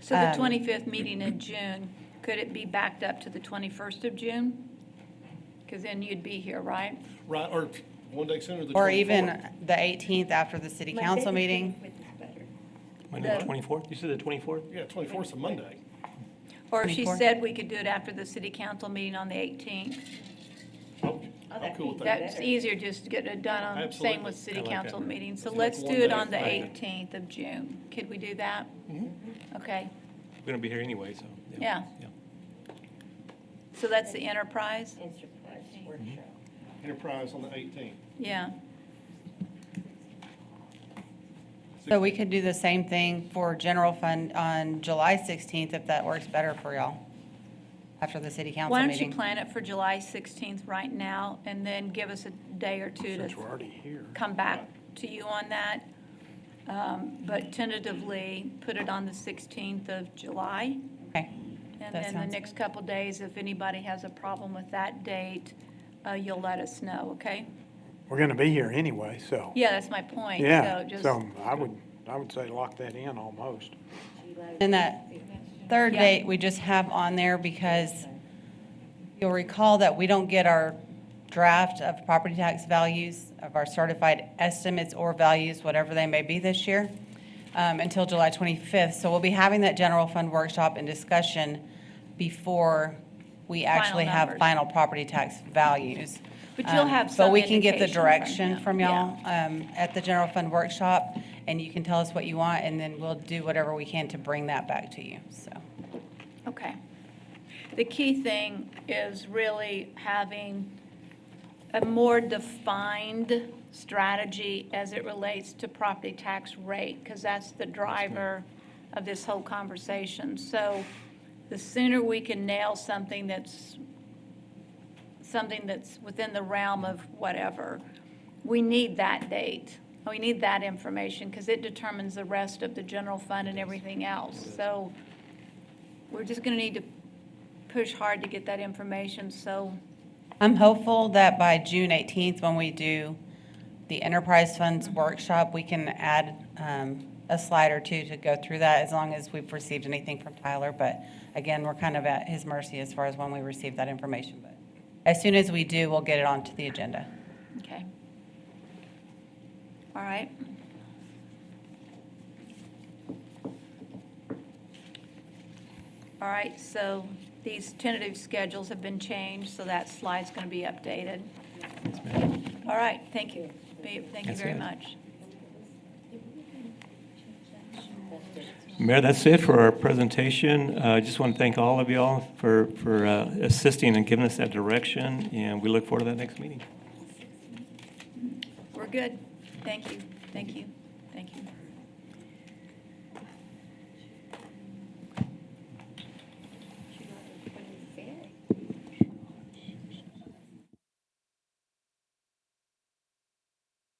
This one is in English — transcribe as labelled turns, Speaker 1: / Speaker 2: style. Speaker 1: So the
Speaker 2: Um,
Speaker 1: 25th meeting in June, could it be backed up to the 21st of June? Because then you'd be here, right?
Speaker 3: Right, or one day sooner, the 24th.
Speaker 2: Or even the 18th after the city council meeting.
Speaker 4: Monday,
Speaker 1: The-
Speaker 4: the 24th? You said the 24th?
Speaker 3: Yeah, 24th's a Monday.
Speaker 1: Or if she
Speaker 2: 24th?
Speaker 1: said we could do it after the city council meeting on the 18th.
Speaker 3: I'm
Speaker 5: Oh,
Speaker 3: I'm
Speaker 5: that'd
Speaker 3: cool
Speaker 5: be
Speaker 3: with that.
Speaker 1: That's easier, just to get it done on, same
Speaker 3: Absolutely.
Speaker 1: with city
Speaker 4: I like
Speaker 1: council
Speaker 4: that.
Speaker 1: meeting. So
Speaker 3: It's like
Speaker 1: let's do
Speaker 3: one
Speaker 1: it
Speaker 3: day.
Speaker 1: on the
Speaker 3: Right.
Speaker 1: 18th of June. Could we do that? Okay,
Speaker 4: We're going to be here anyway, so.
Speaker 1: Yeah.
Speaker 4: yeah.
Speaker 1: so that's the enterprise?
Speaker 5: Enterprise
Speaker 3: Mm-hmm.
Speaker 5: workshop.
Speaker 3: Enterprise on the 18th.
Speaker 1: Yeah,
Speaker 2: So we could do the same thing for general fund on July 16th if that works better for y'all, after the city council
Speaker 1: why don't you
Speaker 2: meeting.
Speaker 1: plan it for July 16th right now, and then give us a day or two to
Speaker 4: Since we're already here.
Speaker 1: come back to you on that. Um, But tentatively, put it on the 16th of July.
Speaker 2: Okay,
Speaker 1: And
Speaker 2: That
Speaker 1: then the
Speaker 2: sounds
Speaker 1: next couple days, if anybody has a problem with that date, uh, you'll let us know, okay?
Speaker 6: We're going to be here anyway, so.
Speaker 1: Yeah, that's my point.
Speaker 6: Yeah,
Speaker 1: just-
Speaker 6: so I would, I would say lock that in almost.
Speaker 2: And that third
Speaker 1: Yeah.
Speaker 2: date, we just have on there because you'll recall that we don't get our draft of property tax values, of our certified estimates or values, whatever they may be this year, um, until July 25th. So we'll be having that general fund workshop and discussion before we actually have
Speaker 1: numbers.
Speaker 2: final property tax values.
Speaker 1: But you'll
Speaker 2: Um,
Speaker 1: have
Speaker 2: But
Speaker 1: some
Speaker 2: we can get the
Speaker 1: indication from
Speaker 2: direction
Speaker 1: them,
Speaker 2: from
Speaker 1: yeah.
Speaker 2: y'all um, at the general fund workshop, and you can tell us what you want, and then we'll do whatever we can to bring that back to you, so.
Speaker 1: Okay. The key thing is really having a more defined strategy as it relates to property tax rate, because that's the driver of this whole conversation. So the sooner we can nail something that's, something that's within the realm of whatever, we need that date. We need that information, because it determines the rest of the general fund and everything else. So we're just going to need to push hard to get that information, so,
Speaker 2: I'm hopeful that by June 18th, when we do the enterprise funds workshop, we can add um, a slide or two to go through that, as long as we've received anything from Tyler. But again, we're kind of at his mercy as far as when we receive that information. But as soon as we do, we'll get it onto the agenda.
Speaker 1: okay. All right. All right, so these tentative schedules have been changed, so that slide's going to be updated. All right, thank you. Babe, Thank you
Speaker 4: That's
Speaker 1: very
Speaker 4: it.
Speaker 1: much.
Speaker 4: Mayor, that's it for our presentation. Uh, I just want to thank all of y'all for, for uh, assisting and giving us that direction, and we look forward to that next meeting.
Speaker 1: We're good. Thank you, thank you, thank you.